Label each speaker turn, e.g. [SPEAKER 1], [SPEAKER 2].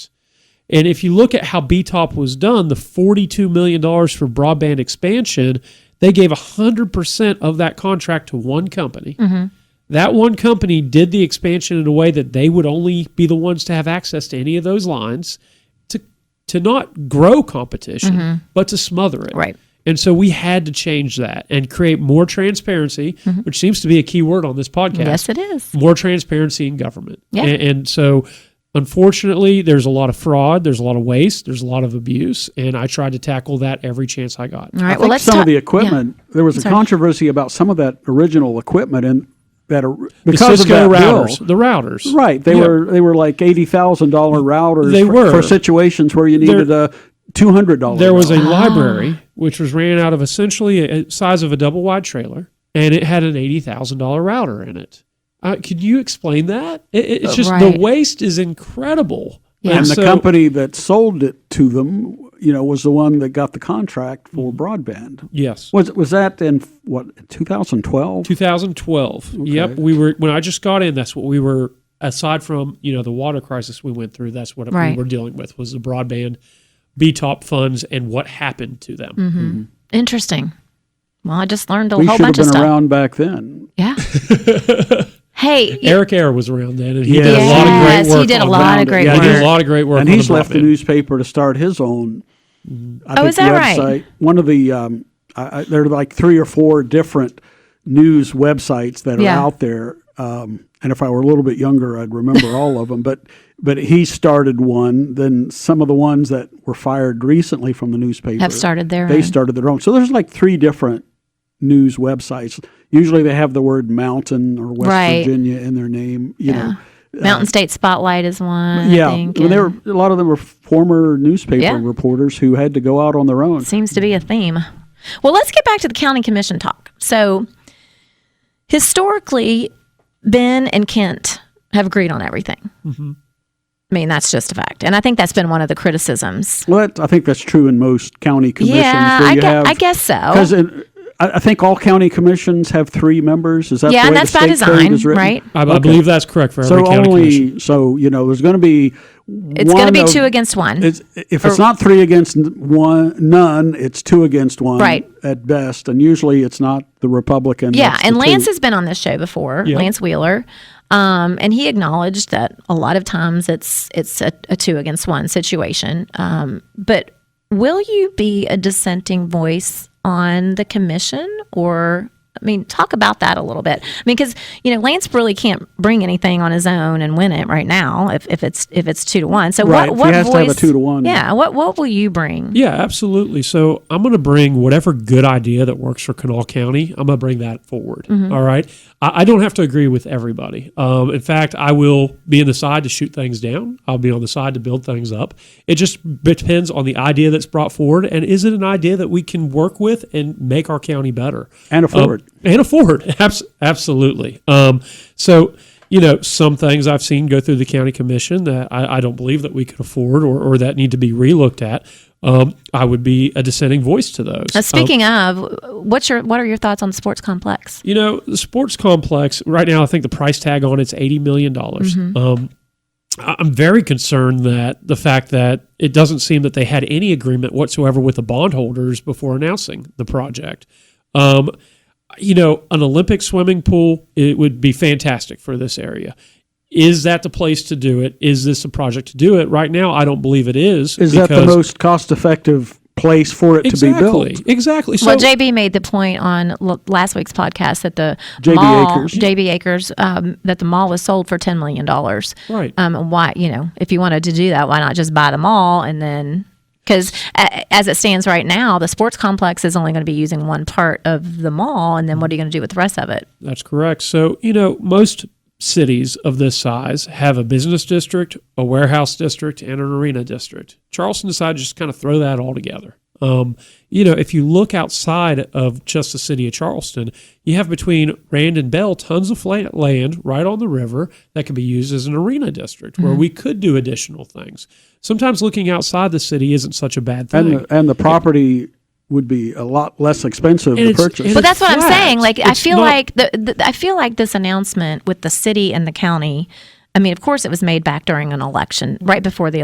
[SPEAKER 1] And if you look at how BTOP was done, the $42 million for broadband expansion, they gave 100% of that contract to one company.
[SPEAKER 2] Mm-hmm.
[SPEAKER 1] That one company did the expansion in a way that they would only be the ones to have access to any of those lines to, to not grow competition, but to smother it.
[SPEAKER 2] Mm-hmm. Right.
[SPEAKER 1] And so we had to change that and create more transparency, which seems to be a key word on this podcast
[SPEAKER 2] Mm-hmm. Yes, it is.
[SPEAKER 1] more transparency in government.
[SPEAKER 2] Yeah.
[SPEAKER 1] And, and so, unfortunately, there's a lot of fraud, there's a lot of waste, there's a lot of abuse, and I tried to tackle that every chance I got. Right.
[SPEAKER 2] All right.
[SPEAKER 3] I
[SPEAKER 2] well,
[SPEAKER 3] think
[SPEAKER 2] let's
[SPEAKER 3] some
[SPEAKER 2] talk
[SPEAKER 3] of the equipment. There was a
[SPEAKER 2] Sorry.
[SPEAKER 3] controversy about some of that original equipment and that or-
[SPEAKER 1] The
[SPEAKER 3] because of
[SPEAKER 1] Cisco
[SPEAKER 3] that
[SPEAKER 1] routers,
[SPEAKER 3] bill.
[SPEAKER 1] the routers,
[SPEAKER 3] Right, they
[SPEAKER 1] Yeah.
[SPEAKER 3] were they were like eighty thousand dollar routers.
[SPEAKER 1] They
[SPEAKER 3] for,
[SPEAKER 1] were.
[SPEAKER 3] for situations where you needed a two hundred dollar.
[SPEAKER 1] There was a
[SPEAKER 2] Oh.
[SPEAKER 1] library which was ran out of essentially a a size of a double wide trailer, and it had an eighty thousand dollar router in it. Uh, can you explain that? It, it- it's just
[SPEAKER 2] Uh, Right.
[SPEAKER 1] the waste is incredible.
[SPEAKER 2] Yeah.
[SPEAKER 3] and
[SPEAKER 1] so-
[SPEAKER 3] the company that sold it to them, you know, was the one that got the contract for broadband.
[SPEAKER 1] Yes.
[SPEAKER 3] Was was that in what 2012?
[SPEAKER 1] 2012. Yep, we were when I just got in. That's what we were. Aside from you know the water crisis we went through, that's what
[SPEAKER 2] Right.
[SPEAKER 1] we were dealing with was the broadband, B top funds, and what happened to them.
[SPEAKER 2] Mm-hmm. Interesting. Well, I just learned a
[SPEAKER 3] We
[SPEAKER 2] whole
[SPEAKER 3] should have
[SPEAKER 2] bunch of
[SPEAKER 3] been
[SPEAKER 2] stuff.
[SPEAKER 3] around back then.
[SPEAKER 2] Yeah. hey,
[SPEAKER 1] Eric Ayer was around then, and he did a
[SPEAKER 3] Yes.
[SPEAKER 1] lot of
[SPEAKER 2] Yes,
[SPEAKER 1] great
[SPEAKER 2] he
[SPEAKER 1] work.
[SPEAKER 2] did a
[SPEAKER 1] on
[SPEAKER 2] lot
[SPEAKER 1] broadband.
[SPEAKER 2] of great
[SPEAKER 1] Yeah, he did
[SPEAKER 2] work.
[SPEAKER 1] a lot of great work.
[SPEAKER 3] and
[SPEAKER 1] on
[SPEAKER 3] he's
[SPEAKER 1] the
[SPEAKER 3] left the
[SPEAKER 1] broadband.
[SPEAKER 3] newspaper to start his own. I
[SPEAKER 2] Oh, is that right?
[SPEAKER 3] One of the um, I, I, there are like three or four different news websites that are
[SPEAKER 2] Yeah.
[SPEAKER 3] out there. Um, and if I were a little bit younger, I'd remember all of them. But but he started one. Then some of the ones that were fired recently from the newspaper
[SPEAKER 2] have started their
[SPEAKER 3] They
[SPEAKER 2] own.
[SPEAKER 3] started their own. So there's like three different news websites. Usually they have the word mountain or West
[SPEAKER 2] Right.
[SPEAKER 3] Virginia in their name. You
[SPEAKER 2] Yeah.
[SPEAKER 3] know.
[SPEAKER 2] Mountain State Spotlight is one.
[SPEAKER 3] uh, Yeah,
[SPEAKER 2] I think,
[SPEAKER 3] well, they were
[SPEAKER 2] and
[SPEAKER 3] a lot of them were former newspaper
[SPEAKER 2] Yeah.
[SPEAKER 3] reporters who had to go out on their own.
[SPEAKER 2] seems to be a theme. Well, let's get back to the county commission talk. So, historically, Ben and Kent have agreed on everything.
[SPEAKER 3] Mm-hmm.
[SPEAKER 2] I mean, that's just a fact, and I think that's been one of the criticisms.
[SPEAKER 3] Well, that, I think that's true in most county commissions.
[SPEAKER 2] Yeah,
[SPEAKER 3] where
[SPEAKER 2] I,
[SPEAKER 3] you
[SPEAKER 2] gue-
[SPEAKER 3] have,
[SPEAKER 2] I guess so.
[SPEAKER 3] because I, I think all county commissions have three members. Is that
[SPEAKER 2] Yeah,
[SPEAKER 3] the
[SPEAKER 2] and
[SPEAKER 3] way
[SPEAKER 2] that's by
[SPEAKER 3] the state code
[SPEAKER 2] design,
[SPEAKER 3] is written?
[SPEAKER 2] right?
[SPEAKER 1] I, I believe that's correct for every
[SPEAKER 3] So
[SPEAKER 1] county commission.
[SPEAKER 3] only so you know there's going to be
[SPEAKER 2] It's going to be two
[SPEAKER 3] against.
[SPEAKER 2] against one.
[SPEAKER 3] It's, if it's not three against n- one, none, it's two against one
[SPEAKER 2] Right.
[SPEAKER 3] at best, and usually it's not the Republican.
[SPEAKER 2] Yeah,
[SPEAKER 3] that's the
[SPEAKER 2] and Lance
[SPEAKER 3] two.
[SPEAKER 2] has been on this show before,
[SPEAKER 1] Yeah.
[SPEAKER 2] Lance Wheeler, um, and he acknowledged that a lot of times it's it's a, a two against one situation. Um, but will you be a dissenting voice on the commission, or I mean, talk about that a little bit. I mean, because you know Lance really can't bring anything on his own and win it right now if, if it's if it's two to one. So
[SPEAKER 3] Right, if
[SPEAKER 2] what
[SPEAKER 3] he
[SPEAKER 2] what
[SPEAKER 3] has to
[SPEAKER 2] voice?
[SPEAKER 3] have a two to one.
[SPEAKER 2] Yeah. What what will you bring?
[SPEAKER 1] Yeah, absolutely. So I'm going to bring whatever good idea that works for Kanawha County. I'm going to bring that forward. All right. I, I don't have to agree with everybody. Um, in fact, I will be on the side to shoot things down. I'll be on the side to build things up. It just depends on the idea that's brought forward, and is it an idea that we can work with and make our county better
[SPEAKER 3] And
[SPEAKER 1] Um,
[SPEAKER 3] afford.
[SPEAKER 1] and afford. Abs- absolutely. Um, so, you know, some things I've seen go through the county commission that I, I don't believe that we could afford or, or that need to be relooked at. Um, I would be a dissenting voice to those. Um,
[SPEAKER 2] Now, Uh, speaking of, what's your what are your thoughts on the sports complex?
[SPEAKER 1] you know, the sports complex right now, I think the price tag on it's eighty million dollars. Um, I- I'm very concerned that the fact that it doesn't seem that they had any agreement whatsoever with the bondholders before announcing the project. Um, you know, an Olympic swimming pool it would be fantastic for this area. Is that the place to do it? Is this the project to do it? Right now, I don't believe it is.
[SPEAKER 3] Is that the
[SPEAKER 1] because-
[SPEAKER 3] most cost-effective place for it
[SPEAKER 1] exactly,
[SPEAKER 3] to be built?
[SPEAKER 1] Exactly. So
[SPEAKER 2] well, JB made the point on l- last week's podcast that the
[SPEAKER 3] JB
[SPEAKER 2] mall,
[SPEAKER 3] Acres.
[SPEAKER 2] JB Acres, um, that the mall was sold for ten million dollars.
[SPEAKER 1] Right.
[SPEAKER 2] Um, and why, you know, if you wanted to do that, why not just buy the mall and then? Because as it stands right now, the sports complex is only going to be using one part of the mall, and then what are you going to do with the rest of it?
[SPEAKER 1] That's correct. So, you know, most cities of this size have a business district, a warehouse district, and an arena district. Charleston decided to just kind of throw that all together. Um, you know, if you look outside of just the city of Charleston, you have between Rand and Bell tons of fla- land right on the river that can be used as an arena district where we could do additional things. Sometimes looking outside the city isn't such a bad thing.
[SPEAKER 3] And the, and the property would be a lot less expensive
[SPEAKER 1] And
[SPEAKER 3] to
[SPEAKER 1] it's-
[SPEAKER 3] purchase.
[SPEAKER 1] and
[SPEAKER 2] But
[SPEAKER 1] But
[SPEAKER 2] that's what I'm
[SPEAKER 1] flat.
[SPEAKER 2] saying. Like I
[SPEAKER 1] It's
[SPEAKER 2] feel
[SPEAKER 1] not-
[SPEAKER 2] like the, the I feel like this announcement with the city and the county. I mean, of course, it was made back during an election, right before the